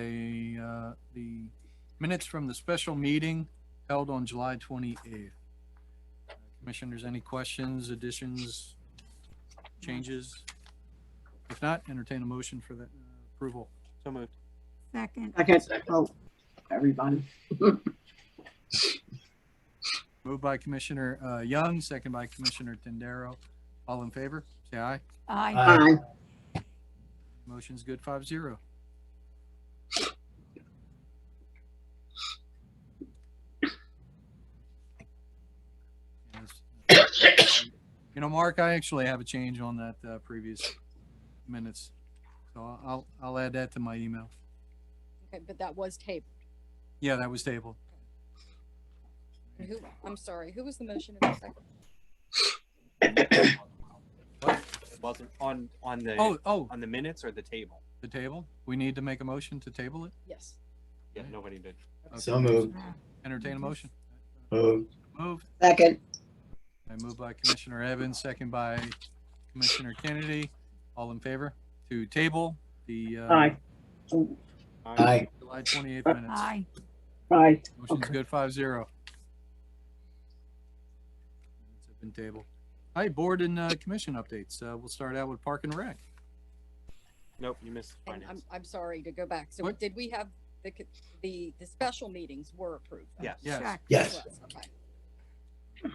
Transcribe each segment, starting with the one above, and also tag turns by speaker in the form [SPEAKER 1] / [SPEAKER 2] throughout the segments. [SPEAKER 1] a, uh, the minutes from the special meeting held on July twenty-eighth. Commissioners, any questions, additions, changes? If not, entertain a motion for that uh, approval.
[SPEAKER 2] So moved.
[SPEAKER 3] Second,
[SPEAKER 4] Second, oh, everybody.
[SPEAKER 1] Moved by Commissioner, uh, Young, second by Commissioner Tendero. All in favor, say aye.
[SPEAKER 3] aye.
[SPEAKER 4] Aye.
[SPEAKER 1] Motion's good, five zero. You know, Mark, I actually have a change on that, uh, previous minutes. So I'll, I'll add that to my email.
[SPEAKER 5] Okay, but that was taped.
[SPEAKER 1] Yeah, that was tabled.
[SPEAKER 5] And Who, I'm sorry, who was the motion in the second?
[SPEAKER 2] It wasn't on, on the,
[SPEAKER 1] Oh, oh,
[SPEAKER 2] on the minutes or the table?
[SPEAKER 1] the table? We need to make a motion to table it?
[SPEAKER 5] Yes.
[SPEAKER 2] Yeah, nobody did.
[SPEAKER 6] So moved.
[SPEAKER 1] Entertain a motion.
[SPEAKER 6] Moved.
[SPEAKER 1] Move.
[SPEAKER 4] Second,
[SPEAKER 1] I move by Commissioner Evans, second by Commissioner Kennedy. All in favor to table the, uh,
[SPEAKER 4] aye. Oh,
[SPEAKER 6] Aye.
[SPEAKER 1] July twenty-eighth minutes.
[SPEAKER 3] Aye.
[SPEAKER 4] Aye,
[SPEAKER 1] Motion's
[SPEAKER 4] Okay.
[SPEAKER 1] good, five zero. It's been tabled. All right, board and, uh, commission updates. Uh, we'll start out with Park and Rec.
[SPEAKER 2] Nope, you missed
[SPEAKER 5] And I'm,
[SPEAKER 2] finance.
[SPEAKER 5] I'm sorry to go back. So
[SPEAKER 1] What?
[SPEAKER 5] did we have the, c- the, the special meetings were approved?
[SPEAKER 2] Yes.
[SPEAKER 1] Yes, yeah,
[SPEAKER 3] Check.
[SPEAKER 6] Yes.
[SPEAKER 5] Was, okay.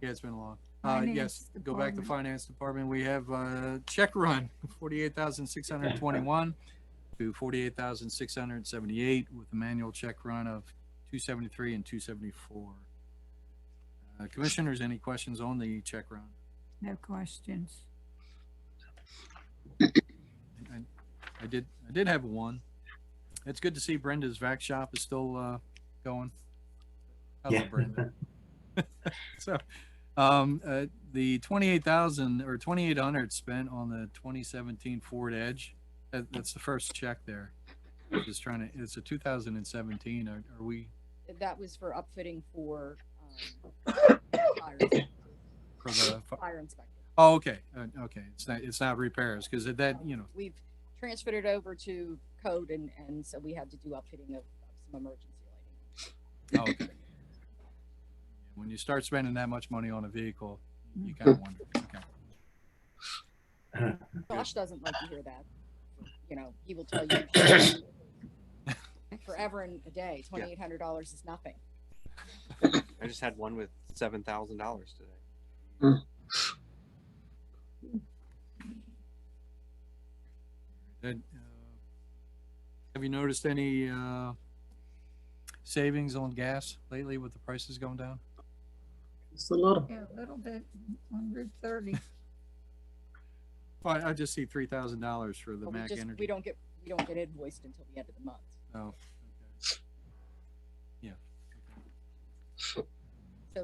[SPEAKER 1] it's been long. Uh, yes,
[SPEAKER 3] Finance
[SPEAKER 1] go back to
[SPEAKER 3] Department.
[SPEAKER 1] finance department. We have, uh, check run, forty-eight thousand six hundred twenty-one to forty-eight thousand six hundred seventy-eight with a manual check run of two seventy-three and two seventy-four. Uh, commissioners, any questions on the check run?
[SPEAKER 3] No questions.
[SPEAKER 1] I, I did, I did have one. It's good to see Brenda's vac shop is still, uh, going. I
[SPEAKER 6] Yeah.
[SPEAKER 1] love Brenda. So, um, uh, the twenty-eight thousand or twenty-eight hundred spent on the twenty seventeen Ford Edge, that, that's the first check there. I'm Just trying to, it's a two thousand and seventeen, are, are we
[SPEAKER 5] That was for upfitting for, um, fire,
[SPEAKER 1] for the,
[SPEAKER 5] fire inspector.
[SPEAKER 1] oh, okay, uh, okay, it's not, it's not repairs, cause it- that, Uh, you know,
[SPEAKER 5] We've transferred it over to code and, and so we had to do upfitting of, of some emergency lighting.
[SPEAKER 1] Oh, okay. When you start spending that much money on a vehicle, you kind of wonder. Okay.
[SPEAKER 5] Josh doesn't like to hear that. You know, he will tell you forever and a day, twenty-eight hundred dollars is nothing.
[SPEAKER 2] I just had one with seven thousand dollars today.
[SPEAKER 1] Then, uh, have you noticed any uh, savings on gas lately with the prices going down?
[SPEAKER 4] just a little.
[SPEAKER 3] Yeah, a little bit, hundred thirty.
[SPEAKER 1] Well, I- I just see three thousand dollars for the
[SPEAKER 5] But we
[SPEAKER 1] Mac
[SPEAKER 5] just-
[SPEAKER 1] Energy.
[SPEAKER 5] We don't get, we don't get invoiced until the end of the month.
[SPEAKER 1] Oh, okay. Yeah.
[SPEAKER 5] So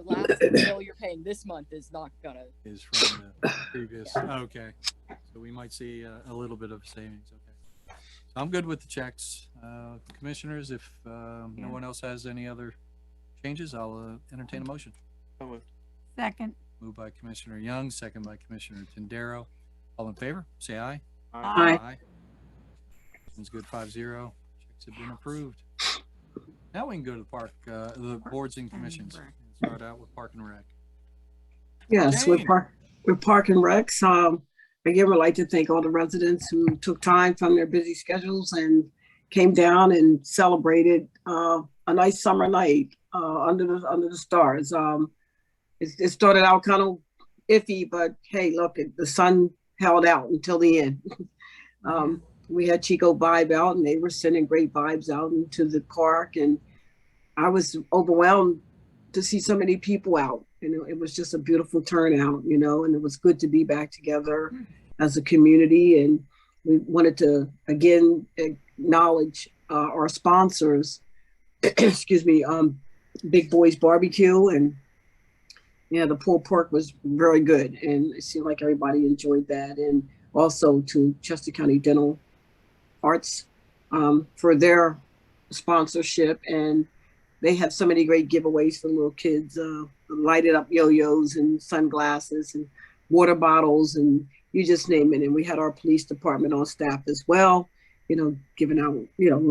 [SPEAKER 5] last bill you're paying this month is not gonna,
[SPEAKER 1] Is from the previous. Okay. So we might see uh, a little bit of savings. Okay. So I'm good with the checks. Uh, commissioners, if um, no
[SPEAKER 3] Yeah.
[SPEAKER 1] one else has any other changes, I'll uh, entertain a motion.
[SPEAKER 2] So moved.
[SPEAKER 3] Second,
[SPEAKER 1] Moved by Commissioner Young, second by Commissioner Tendero. All in favor, say aye.
[SPEAKER 3] Aye.
[SPEAKER 1] It's good, five zero. Checks have been approved. Now we can go to the park, uh, the boards and commissions.
[SPEAKER 3] and Rec.
[SPEAKER 1] Start out with Park and Rec.
[SPEAKER 4] Yes, we're
[SPEAKER 1] Jane.
[SPEAKER 4] park, we're parking recs. Um, again, we'd like to thank all the residents who took time from their busy schedules and came down and celebrated, uh, a nice summer night, uh, under the, under the stars. Um, it, it started out kind of iffy, but hey, look, it- the sun held out until the end. Um, we had Chico vibe out and they were sending great vibes out into the park and I was overwhelmed to see so many people out. You know, it was just a beautiful turnout, you know, and it was good to be back together as a community. And we wanted to again acknowledge uh, our sponsors, excuse me, um, Big Boys Barbecue. And yeah, the pulled pork was very good. And it seemed like everybody enjoyed that. And also to Chester County Dental Arts um, for their sponsorship and they have so many great giveaways for little kids uh, lighted up yo-yos and sunglasses and water bottles and you just name it and we had our police department on staff as well you know, giving out, you know,